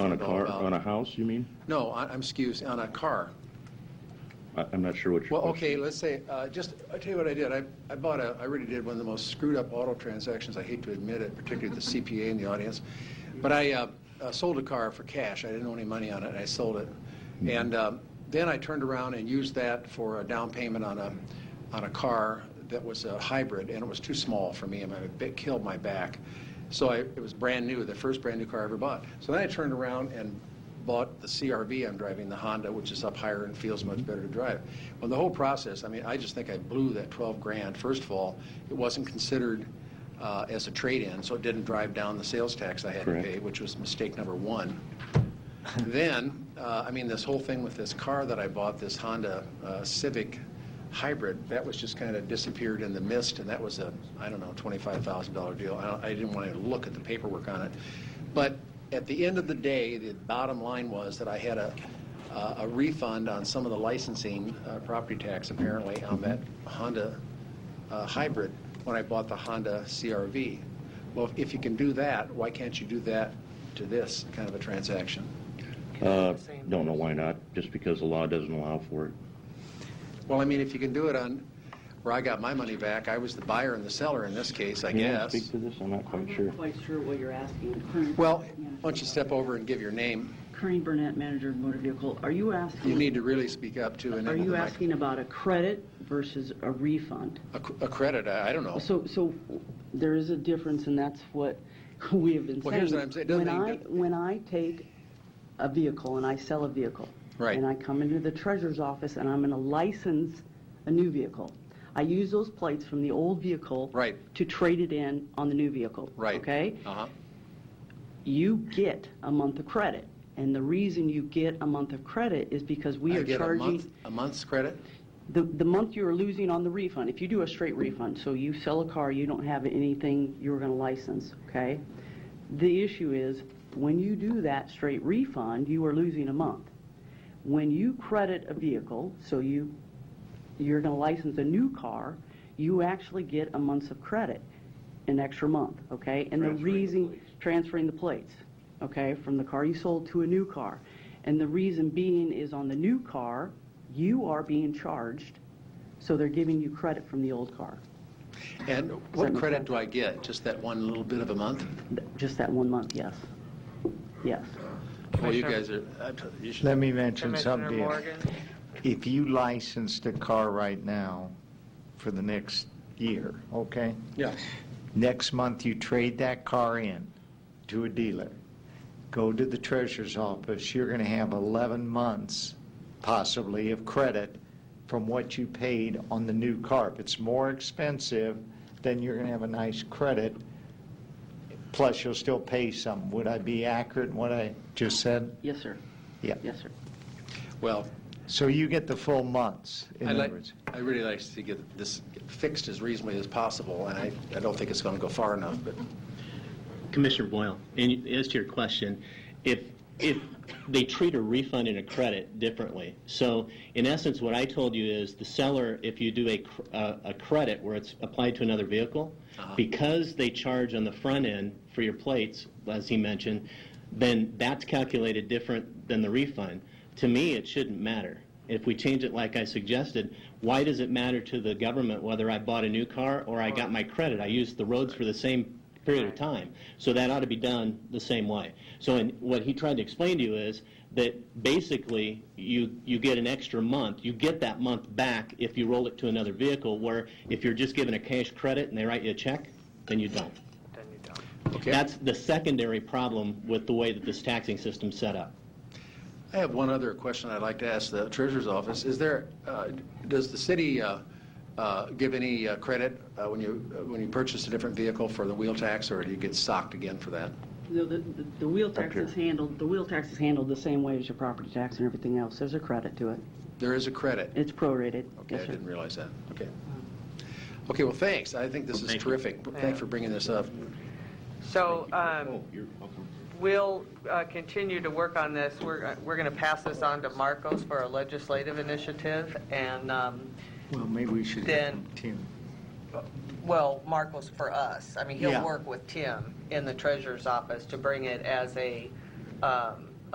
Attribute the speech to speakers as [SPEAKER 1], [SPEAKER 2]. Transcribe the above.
[SPEAKER 1] on a
[SPEAKER 2] know
[SPEAKER 1] car,
[SPEAKER 2] about.
[SPEAKER 1] on a house, you mean?
[SPEAKER 2] No, I- I'm, excuse, on a car.
[SPEAKER 1] I- I'm not sure what your
[SPEAKER 2] Well,
[SPEAKER 1] question
[SPEAKER 2] okay, let's say, uh, just, i tell you what I did. I, I bought a, I really did one of the most screwed up auto transactions. I hate to admit it, particularly the CPA in the audience. But I uh, uh, sold a car for cash. I didn't owe any money on it, and I sold it. And um, then I turned around and used that for a down payment on a, on a car that was a hybrid, and it was too small for me, and my- it killed my back. So I, it was brand new, the first brand new car I ever bought. So then I turned around and bought the CRV I'm driving, the Honda, which is up higher and feels much better to drive. Well, the whole process, I mean, I just think I blew that 12 grand. First of all, it wasn't considered uh, as a trade-in, so it didn't drive down the sales tax I had to
[SPEAKER 1] Correct.
[SPEAKER 2] pay, which was mistake number one. Then, uh, I mean, this whole thing with this car that I bought, this Honda uh, Civic Hybrid, that was just kind of disappeared in the mist, and that was a, I don't know, $25,000 deal. I don't- I didn't want to look at the paperwork on it. But at the end of the day, the bottom line was that I had a uh, a refund on some of the licensing, uh, property tax apparently, on that Honda uh, hybrid when I bought the Honda CRV. Well, if- if you can do that, why can't you do that to this kind of a transaction?
[SPEAKER 1] Uh, Don't know why not, just because the law doesn't allow for it.
[SPEAKER 2] Well, I mean, if you can do it on, where I got my money back, I was the buyer and the seller in this case, I
[SPEAKER 1] Can you
[SPEAKER 2] guess. Mm-hmm.
[SPEAKER 1] Speak to this, I'm not
[SPEAKER 3] I'm
[SPEAKER 1] quite sure.
[SPEAKER 3] not quite sure what you're asking. Kearney-
[SPEAKER 2] Well,
[SPEAKER 3] Yeah.
[SPEAKER 2] why don't you step over and give your name?
[SPEAKER 3] Kearney Burnett, manager of motor vehicle, are you
[SPEAKER 2] You
[SPEAKER 3] asking,
[SPEAKER 2] need to really speak up to and
[SPEAKER 3] are
[SPEAKER 2] into
[SPEAKER 3] you
[SPEAKER 2] the mic.
[SPEAKER 3] asking about a credit versus a refund?
[SPEAKER 2] A cr- A credit, I I don't know.
[SPEAKER 3] So, so there is a difference, and that's what we have been saying.
[SPEAKER 2] Well, here's what I'm saying. It doesn't
[SPEAKER 3] When I,
[SPEAKER 2] mean-
[SPEAKER 3] when I take a vehicle and I sell a vehicle.
[SPEAKER 2] Right.
[SPEAKER 3] And I come into the treasurer's office and I'm going to license a new vehicle. I use those plates from the old vehicle.
[SPEAKER 2] Right.
[SPEAKER 3] To trade it in on the new vehicle.
[SPEAKER 2] Right.
[SPEAKER 3] Okay?
[SPEAKER 2] Uh-huh.
[SPEAKER 3] you get a month of credit. And the reason you get a month of credit is because we
[SPEAKER 2] I
[SPEAKER 3] are
[SPEAKER 2] get a month,
[SPEAKER 3] charging,
[SPEAKER 2] a month's credit?
[SPEAKER 3] the, the month you're losing on the refund, if you do a straight refund, so you sell a car, you don't have anything you were gonna license, okay? The issue is, when you do that straight refund, you are losing a month. When you credit a vehicle, so you, you're gonna license a new car, you actually get a month's of credit, an extra month, okay? And the
[SPEAKER 1] Transferring the
[SPEAKER 3] reason,
[SPEAKER 1] plates.
[SPEAKER 3] transferring the plates, okay, from the car you sold to a new car. And the reason being is on the new car, you are being charged, so they're giving you credit from the old car,
[SPEAKER 2] And
[SPEAKER 3] that
[SPEAKER 2] what
[SPEAKER 3] make
[SPEAKER 2] credit
[SPEAKER 3] sense?
[SPEAKER 2] do I get? Just that one little bit of a month?
[SPEAKER 3] Th- just that one month, yes. Yes.
[SPEAKER 2] Well, you
[SPEAKER 4] Commissioner-
[SPEAKER 2] guys are, I t- you should,
[SPEAKER 5] Let me mention
[SPEAKER 4] Commissioner
[SPEAKER 5] something.
[SPEAKER 4] Morgan,
[SPEAKER 5] If you licensed a car right now for the next year, okay?
[SPEAKER 2] yeah,
[SPEAKER 5] Next month, you trade that car in to a dealer, go to the treasurer's office, you're going to have 11 months possibly of credit from what you paid on the new car. If it's more expensive, then you're going to have a nice credit, plus you'll still pay some. Would I be accurate in what I just said?
[SPEAKER 3] Yes, sir.
[SPEAKER 5] Yeah.
[SPEAKER 3] Yes, sir.
[SPEAKER 2] well,
[SPEAKER 5] So you get the full months, in
[SPEAKER 2] I'd
[SPEAKER 5] other
[SPEAKER 2] like,
[SPEAKER 5] words?
[SPEAKER 2] I really like to get this fixed as reasonably as possible, and I, I don't think it's going to go far enough, but
[SPEAKER 6] Commissioner Boyle, and as to your question, if, if they treat a refund and a credit differently, so in essence, what I told you is the seller, if you do a, cr- a a credit where it's applied to another vehicle, because they charge on the front end for your plates, as he mentioned, then that's calculated different than the refund. To me, it shouldn't matter. If we change it like I suggested, why does it matter to the government whether I bought a new car or I got my credit? I used the roads for the same period of time. So that ought to be done the same way. So in, what he tried to explain to you is that basically you, you get an extra month. You get that month back if you roll it to another vehicle, where if you're just given a cash credit and they write you a check, then you don't.
[SPEAKER 4] then you don't.
[SPEAKER 2] okay?
[SPEAKER 6] That's the secondary problem with the way that this taxing system's set up.
[SPEAKER 2] I have one other question I'd like to ask the treasurer's office. Is there, uh, does the city uh, uh, give any uh, credit uh, when you, uh, when you purchase a different vehicle for the wheel tax, or do you get socked again for that?
[SPEAKER 3] No, the, the- the wheel tax is handled, the wheel tax is handled the same way as your property tax and everything else. There's a credit to it.
[SPEAKER 2] There is a credit.
[SPEAKER 3] It's prorated.
[SPEAKER 2] Okay, I
[SPEAKER 3] Yes, sir.
[SPEAKER 2] didn't realize that. Okay. Okay, well, thanks. I think this is terrific. Thanks for bringing this up.
[SPEAKER 4] So um,
[SPEAKER 1] Oh, you're welcome.
[SPEAKER 4] we'll uh, continue to work on this. We're, uh, we're going to pass this on to Marcos for our legislative initiative, and, um,
[SPEAKER 5] Well, maybe we should
[SPEAKER 4] Then-
[SPEAKER 5] have Tim.
[SPEAKER 4] well, Marcos for us. I mean, he'll
[SPEAKER 5] Yeah.
[SPEAKER 4] work with Tim in the treasurer's office to bring it as a, um,